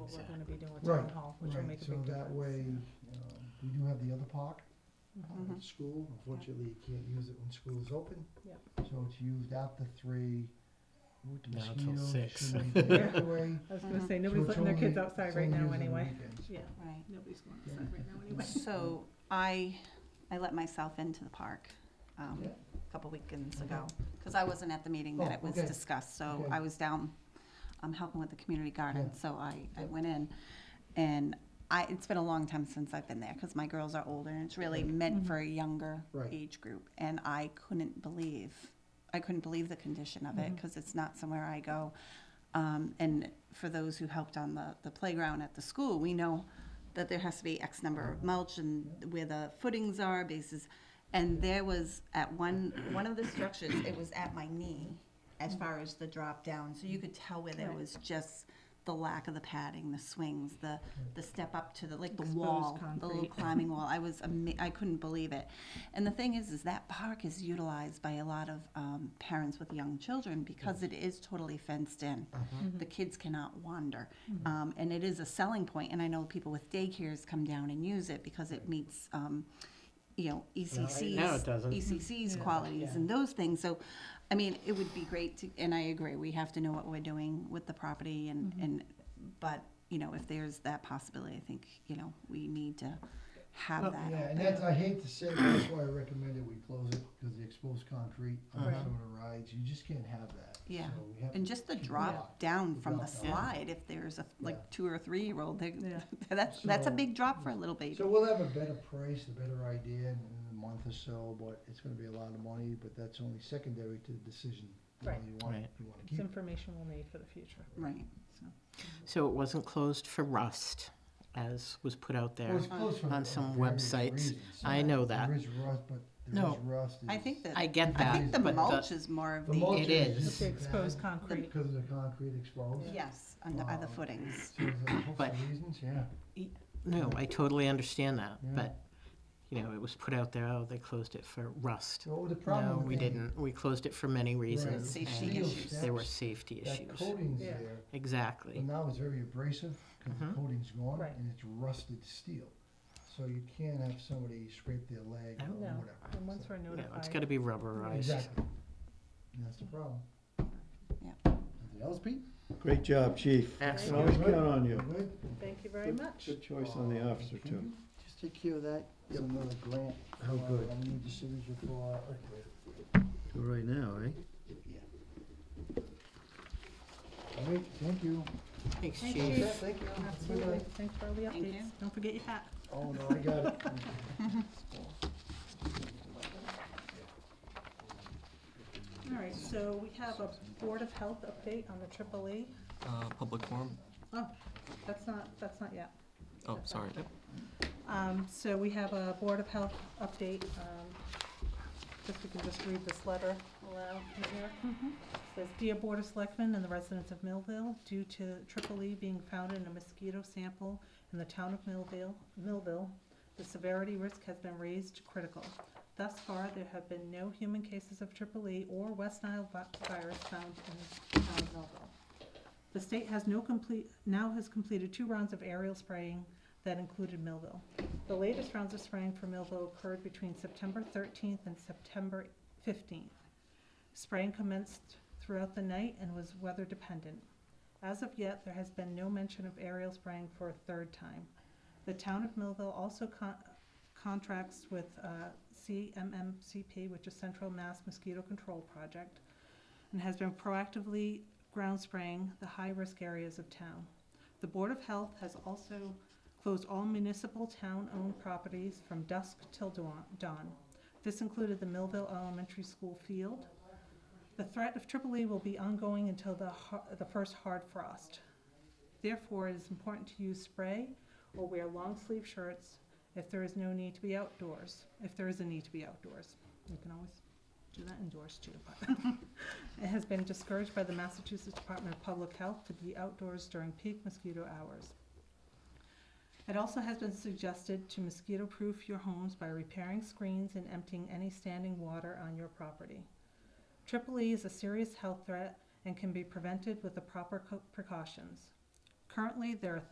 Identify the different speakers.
Speaker 1: what we're gonna be doing with
Speaker 2: Right,
Speaker 1: town hall, which will
Speaker 2: Right,
Speaker 1: make a big
Speaker 2: So that
Speaker 1: difference.
Speaker 2: way, um, we do have the other park uh, at
Speaker 3: Mm-hmm.
Speaker 1: Mhm.
Speaker 2: school, unfortunately, you can't use it when school is open.
Speaker 1: Yep.
Speaker 2: So it's used after three, with the
Speaker 4: Now till
Speaker 2: mosquitoes,
Speaker 4: six.
Speaker 2: shooting the air away.
Speaker 1: I was gonna
Speaker 3: Mhm.
Speaker 1: say,
Speaker 2: So
Speaker 1: nobody's
Speaker 2: it's
Speaker 1: letting their kids
Speaker 2: only-
Speaker 1: outside
Speaker 2: it's
Speaker 1: right
Speaker 2: only
Speaker 1: now
Speaker 2: used on the
Speaker 1: anyway.
Speaker 2: weekends.
Speaker 1: Yeah,
Speaker 3: Right.
Speaker 1: nobody's going outside right now anyway.
Speaker 3: So I, I let myself into the park um,
Speaker 2: Yeah.
Speaker 3: a couple weekends
Speaker 2: Okay.
Speaker 3: ago, because I wasn't at the meeting that
Speaker 2: Oh,
Speaker 3: it was
Speaker 2: okay.
Speaker 3: discussed, so
Speaker 2: Okay.
Speaker 3: I was down, I'm helping with the community garden,
Speaker 2: Yeah.
Speaker 3: so I, I
Speaker 2: Yeah.
Speaker 3: went in. And I, it's been a long time since I've been there, because my girls are older, and it's really
Speaker 2: Okay.
Speaker 3: meant
Speaker 1: Mhm.
Speaker 3: for a younger
Speaker 2: Right.
Speaker 3: age group. And I couldn't believe, I couldn't believe the condition of it,
Speaker 1: Mhm.
Speaker 3: because it's not somewhere I go. Um, And for those who helped on the, the playground at the school, we know that there has to be X number of mulch and where the footings are, bases. And there was at one, one of the structures, it was at my knee as far as the drop down. So you could tell where there
Speaker 1: Right.
Speaker 3: was just the lack of the padding, the swings, the, the step up to the, like the
Speaker 1: Exposed
Speaker 3: wall, the little
Speaker 1: concrete.
Speaker 3: climbing wall. I was, ama- I couldn't believe it. And the thing is, is that park is utilized by a lot of um, parents with young children because it is totally fenced in
Speaker 2: Mm-hmm.
Speaker 3: the kids cannot wander. Um, and it is a selling point, and I know people with daycares come down and use it because it meets, um, you know, E ECC's.
Speaker 4: now it doesn't.
Speaker 3: ECC's
Speaker 1: Yeah.
Speaker 3: E qualities and those things, so, I mean, it would be great to, and I agree, we have to know what we're doing with the property and,
Speaker 2: Mm-hmm.
Speaker 3: and, but, you know, if there's that possibility, I think, you know, we need to have
Speaker 1: Well,
Speaker 3: that.
Speaker 2: Yeah, and that's, I hate to say, it, that's why I recommend that we close it, because the exposed concrete on
Speaker 1: Right.
Speaker 2: some of the rides, you just can't have that.
Speaker 3: Yeah.
Speaker 2: So we have
Speaker 3: And
Speaker 2: to-
Speaker 3: just the
Speaker 2: Yeah.
Speaker 3: drop down from the
Speaker 2: Drop down.
Speaker 3: slide, if there's a,
Speaker 2: Yeah.
Speaker 3: like, two or three-year-old, they,
Speaker 1: Yeah.
Speaker 3: that's, that's a
Speaker 2: So-
Speaker 3: big drop for a little baby.
Speaker 2: So we'll have a better price, a better idea in in a month or so, but it's gonna be a lot of money, but that's only secondary to the decision. whether
Speaker 1: Right.
Speaker 2: You want,
Speaker 4: Right.
Speaker 2: you wanna
Speaker 1: It's
Speaker 2: keep it.
Speaker 1: information we'll need for the future.
Speaker 3: Right, so.
Speaker 4: So it wasn't closed for rust, as was put out
Speaker 2: Well,
Speaker 4: there.
Speaker 2: it's close for
Speaker 4: on some
Speaker 2: various
Speaker 4: websites.
Speaker 2: reasons.
Speaker 4: I know that.
Speaker 2: There is rust, but there
Speaker 4: No.
Speaker 2: is rust.
Speaker 3: I
Speaker 2: is-
Speaker 3: think that,
Speaker 4: I get
Speaker 3: I
Speaker 4: that,
Speaker 3: think the
Speaker 4: but
Speaker 3: mulch is more of
Speaker 2: The mulch
Speaker 3: the,
Speaker 4: It is.
Speaker 2: just
Speaker 1: The exposed
Speaker 2: bad
Speaker 1: concrete.
Speaker 2: Because of the concrete exposed.
Speaker 1: Yeah.
Speaker 3: yes, under other
Speaker 2: Um,
Speaker 3: footings.
Speaker 2: So there's a host
Speaker 4: But-
Speaker 2: of reasons, yeah.
Speaker 4: No, I totally understand that,
Speaker 2: Yeah.
Speaker 4: but, you know, it was put out there, oh, they closed it for rust.
Speaker 2: So the problem
Speaker 4: No,
Speaker 2: with
Speaker 4: we
Speaker 2: that-
Speaker 4: didn't. We closed it for many reasons.
Speaker 3: Safety
Speaker 4: and
Speaker 3: issues.
Speaker 4: There were safety
Speaker 2: That
Speaker 4: issues.
Speaker 2: coating's
Speaker 1: Yeah.
Speaker 2: there, but
Speaker 4: Exactly.
Speaker 2: now it's very abrasive, because the
Speaker 4: Mhm.
Speaker 2: coating's gone,
Speaker 1: Right.
Speaker 2: and it's rusted steel. So you can't have somebody scrape their leg or
Speaker 4: No.
Speaker 1: No.
Speaker 2: whatever.
Speaker 1: And once
Speaker 2: so-
Speaker 1: we're
Speaker 4: No,
Speaker 1: notified.
Speaker 4: it's gotta be rubberized.
Speaker 2: Exactly. And that's the problem.
Speaker 3: Yeah.
Speaker 2: Anything else, Pete?
Speaker 5: Great job, chief. Can
Speaker 4: Excellent.
Speaker 5: always count on
Speaker 2: You
Speaker 5: you.
Speaker 2: good?
Speaker 1: Thank you very much.
Speaker 5: Good choice on the officer,
Speaker 2: Can
Speaker 5: too.
Speaker 2: you Just take care of that, it's
Speaker 5: Yep.
Speaker 2: another grant.
Speaker 5: Oh, good.
Speaker 2: I need the signature for, uh,
Speaker 5: All right now, eh?
Speaker 2: all right, thank you.
Speaker 4: Thanks,
Speaker 1: Thank
Speaker 4: Chief.
Speaker 1: you.
Speaker 2: Yeah, Thank you.
Speaker 1: Absolutely. Thanks for all the
Speaker 3: Thank
Speaker 1: updates.
Speaker 3: you.
Speaker 1: Don't forget your hat.
Speaker 2: Oh, no, I got it.
Speaker 1: All right, so we have a Board of Health update on the AAA.
Speaker 6: Uh, public forum?
Speaker 1: Oh, that's not, that's not yet.
Speaker 6: Oh, sorry.
Speaker 1: Um, so we have a Board of Health update, um, if we can just read this letter aloud from here. Says, Dear Board of Selectmen and the residents of Millville, due to triple E being found in a mosquito sample in the town of Millville, Millville, the severity risk has been raised to critical. Thus far, there have been no human cases of triple E or West Nile vi- virus found in the town of Millville. The state has no complete, now has completed two rounds of aerial spraying that included Millville. The latest rounds of spraying for Millville occurred between September thirteenth and September fifteenth. Spraying commenced throughout the night and was weather dependent. As of yet, there has been no mention of aerial spraying for a third time. The town of Millville also con- contracts with uh, CMMCP, which is Central Mass Mosquito Control Project, and has been proactively ground spraying the high-risk areas of town. The Board of Health has also closed all municipal town-owned properties from dusk till dawn- dawn. This included the Millville Elementary School field. The threat of triple E will be ongoing until the, har- the first hard frost. Therefore, it is important to use spray or wear long-sleeve shirts if there is no need to be outdoors, if there is a need to be outdoors. You can always do that indoors too, but it has been discouraged by the Massachusetts Department of Public Health to be outdoors during peak mosquito hours. It also has been suggested to mosquito-proof your homes by repairing screens and emptying any standing water on your property. Triple E is a serious health threat and can be prevented with the proper co- precautions. Currently, there are